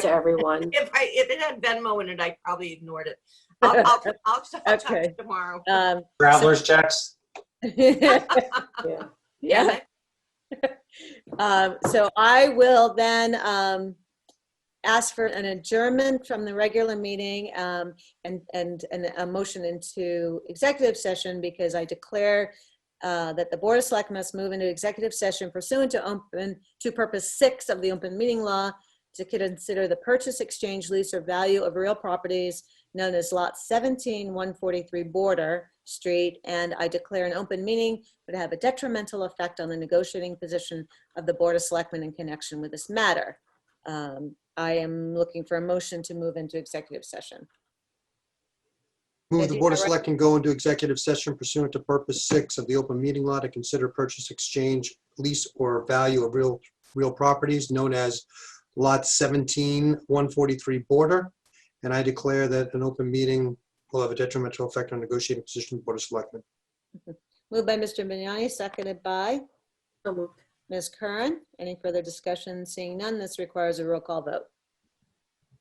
to everyone. If I, if it had Venmo in it, I probably ignored it. I'll, I'll, I'll, I'll talk to Okay. you tomorrow. Um, Traveler's checks? Yeah. yeah. Um, so I will then, um, ask for an adjournment from the regular meeting, um, and, and, and a motion into executive session because I declare, uh, that the Board of Select must move into executive session pursuant to open, to purpose six of the open meeting law to consider the purchase, exchange, lease, or value of real properties known as Lot 17, 143 Border Street, and I declare an open meeting would have a detrimental effect on the negotiating position of the Board of Selectmen in connection with this matter. Um, I am looking for a motion to move into executive session. Move the Vicky, Board of correct? Select and go into executive session pursuant to purpose six of the open meeting law to consider purchase, exchange, lease, or value of real, real properties known as lot 17, 143 border. And I declare that an open meeting will have a detrimental effect on negotiating position of the Board of Selectmen. Moved by Mr. Vignani, seconded by So moved. Ms. Curran. Any further discussion? Seeing none, this requires a roll call vote.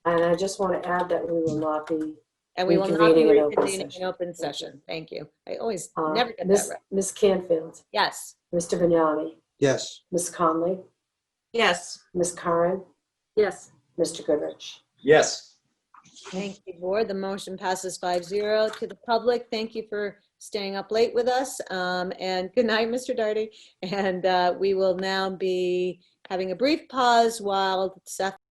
And I just want to add that we will not be, And we will not be Reconvening in open reconvening in session. open session. Thank you. I always uh, never get that Miss right. Miss Canfield, Yes. Mr. Vignani, Yes, Miss Conley, Yes, Miss Curran, Yes. Mr. Goodrich. Yes. Thank you, board. The motion passes 5-0 To the public, thank you for staying up late with us. Um, And good night, Mr. Darty. And uh, we will now be having a brief pause while Seth